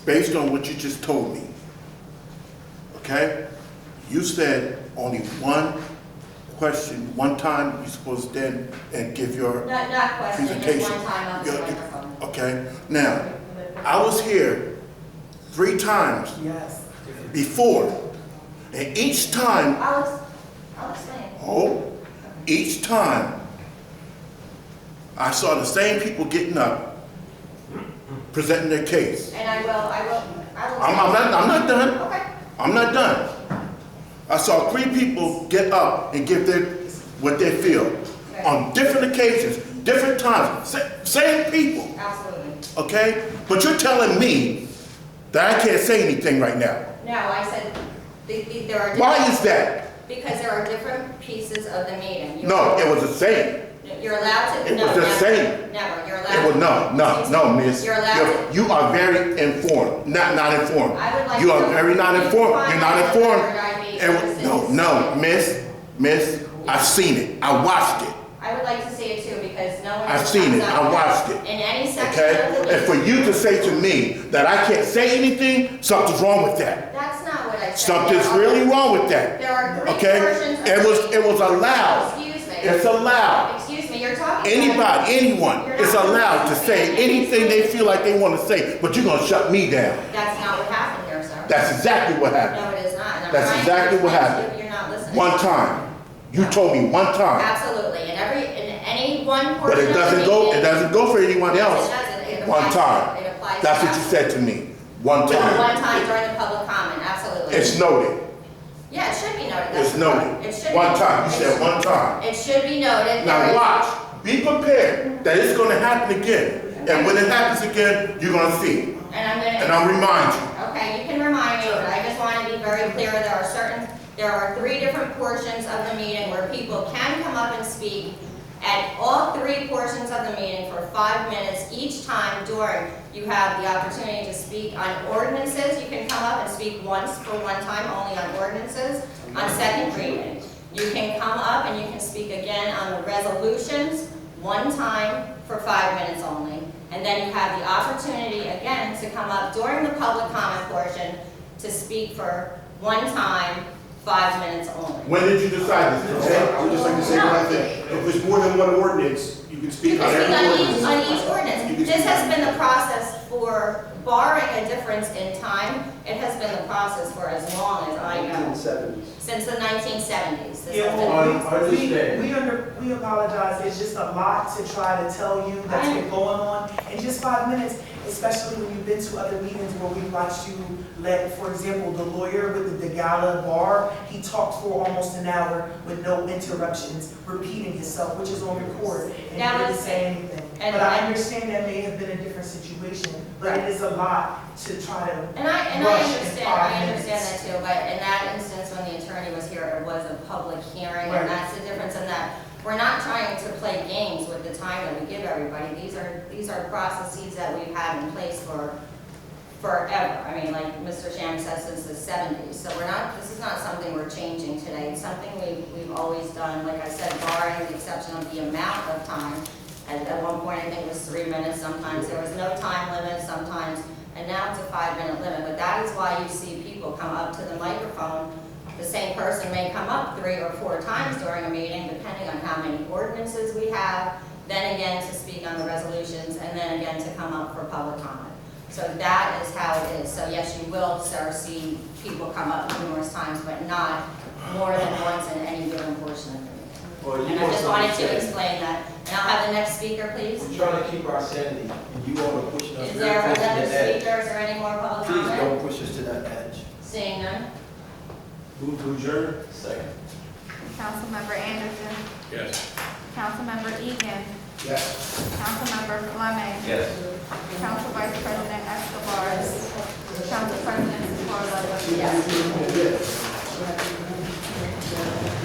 based on what you just told me, okay? You said only one question, one time you're supposed to stand and give your Not, not question, just presentation. one time on the Your- microphone. Okay, now, I was here three times Yes. before, and each time I'll, ex- I'll explain. Oh, each time I saw the same people getting up, presenting their case. And I will, I will, I will. I'm, I'm not, I'm not done. Okay, I'm not done. I saw three people get up and give their, what they feel on different occasions, different times, sa- same people, absolutely. okay? But you're telling me that I can't say anything right now. No, I said, the- the- there are. Why different- is that? Because there are different pieces of the meeting. You- No, it was the same. You're allowed to. It no, was the never, same. Never, you're allowed. It was, no, no, no, miss. You're allowed. You're- You are very informed, not, not informed. I would like You to are know- very not informed, you're not informed. Find out And whether I made w- No, no, miss, miss, I've seen it, I watched it, I would like to see it too, because no one. I've else seen it. comes I up watched it. In any section of the okay? And for meeting. you to say to me that I can't say anything, something's wrong with that. That's not what I said. Something's There are- really wrong with that, There are three okay? versions of. It was, the- it was allowed, Excuse me. it's allowed. Excuse me, you're talking. about- Anybody, anyone is allowed to say anything they feel like they want to say, but you're gonna shut me down. That's not what happened here, sir. That's exactly what happened. No, it is not. and I'm That's trying to exactly what explain to happened. you, You're not listening. One time. You told me one time. Absolutely, and every, in any one But portion of the it doesn't go, it meeting- doesn't go for anyone Yes, else. it does. It- it One applies- time. It applies. to That's what you said everyone. to me. One No, One time. time during the public comment, absolutely. It's noted. Yeah, it should be noted. that's It's the point. It noted. should be. One time. You said It- one time. It should be noted. there Now is- watch. Be prepared that it's gonna happen again. And when it happens again, you're gonna see. it. And I'm gonna. And I'll remind you. Okay, you can remind me, but I just want to be very clear, there are certain, there are three different portions of the meeting where people can come up and speak at all three portions of the meeting for five minutes each time during. You have the opportunity to speak on ordinances, you can come up and speak once for one time only on ordinances, on second reading. You can come up and you can speak again on the resolutions, one time for five minutes only. And then you have the opportunity again to come up during the public comment portion to speak for one time, five minutes only. When did you decide this? Okay, I would just like to say one thing. If there's more than one ordinance, you can You speak on can every speak on each, on ordinance. each ordinance. This has been the process for barring a difference in time. It has been the process for as long as I know, since the nineteen seventies. Yeah, well, we, we, we under, we apologize, it's just a lot to try to tell you that's been going on in just five minutes, especially when you've been to other meetings where we watched you let, for example, the lawyer with the Degala bar, he talked for almost an hour with no interruptions, repeating himself, which is on record, and That he didn't was- say anything. and- But I understand that may have been a different situation, but it is a lot to try to And I, and I Rush in understand, five I understand that minutes. too, but in that instance, when the attorney was here, it was a public hearing, Right. and that's the difference in that. We're not trying to play games with the time that we give everybody, these are, these are processes that we've had in place for forever. I mean, like Mr. Sham says, since the seventies, so we're not, this is not something we're changing today. It's something we, we've always done, like I said, barring the exception of the amount of time. At, at one point, I think it was three minutes, sometimes there was no time limit, sometimes, and now it's a five-minute limit. But that is why you see people come up to the microphone. The same person may come up three or four times during a meeting, depending on how many ordinances we have, then again to speak on the resolutions, and then again to come up for public comment. So that is how it is. So yes, you will, sir, see people come up numerous times, but not more than once in any given portion of the meeting. Well, you And I want just wanted something to said. explain that. And I'll have the next speaker, please. We're trying to keep our sanity, and you all are pushing us, Is you're there pushing to another that edge. speakers or any more public Please comment? don't push us to that edge. Seeing none. Move to adjourn? Second. Councilmember Anderson. Yes. Councilmember Egan. Yes. Councilmember Fleming. Yes. Council Vice President Escobar. Council President Secorla. Yes.